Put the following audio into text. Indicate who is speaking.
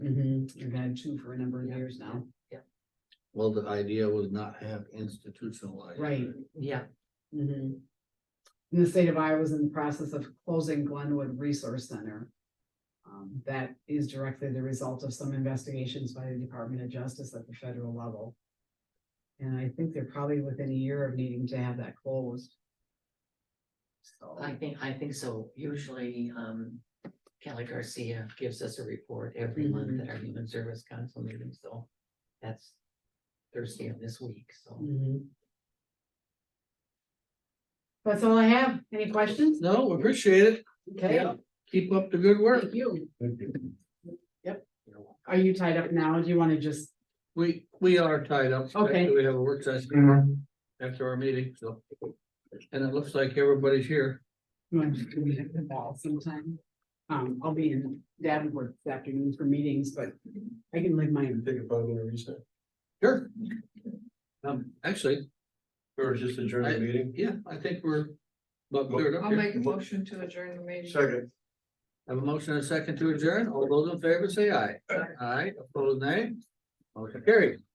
Speaker 1: Mm-hmm, you've had two for a number of
Speaker 2: Yeah.
Speaker 1: years now,
Speaker 3: Well, the idea was not have institutionalized. it.
Speaker 1: right?
Speaker 2: Yeah,
Speaker 1: Mm-hmm. And the state of Iowa is in the process of closing Glenwood Resource Center. Um, that is directly the result of some investigations by the Department of Justice at the federal level. And I think they're probably within a year of needing to have that closed. So,
Speaker 2: I think, I think so. Usually, um, Kelly Garcia gives us a report every month at our Human Service Council meeting, so that's Thursday of this week, so.
Speaker 1: mhm. That's all I have. Any questions?
Speaker 4: No, appreciate it.
Speaker 1: Okay,
Speaker 4: Yeah. Keep up the good work.
Speaker 1: thank you.
Speaker 2: you know,
Speaker 1: Are you tied up now? Do you want to just,
Speaker 4: We, we are tied up.
Speaker 1: Okay.
Speaker 4: We have a work session after our meeting, so. And it looks like everybody's here.
Speaker 1: you want to do it at the ball sometime? Um, I'll be in Davenport this afternoon for meetings, but I can leave my,
Speaker 3: Take a five minute reset.
Speaker 4: Sure. Um, actually,
Speaker 3: Or just adjourn
Speaker 4: the
Speaker 3: meeting?
Speaker 4: yeah, I think we're. But cleared up
Speaker 5: I'll
Speaker 4: here.
Speaker 5: make a motion to adjourn the meeting.
Speaker 3: Second.
Speaker 4: Have a motion and a second to adjourn. All those in favor say aye. Aye, opposed nay. Motion carried.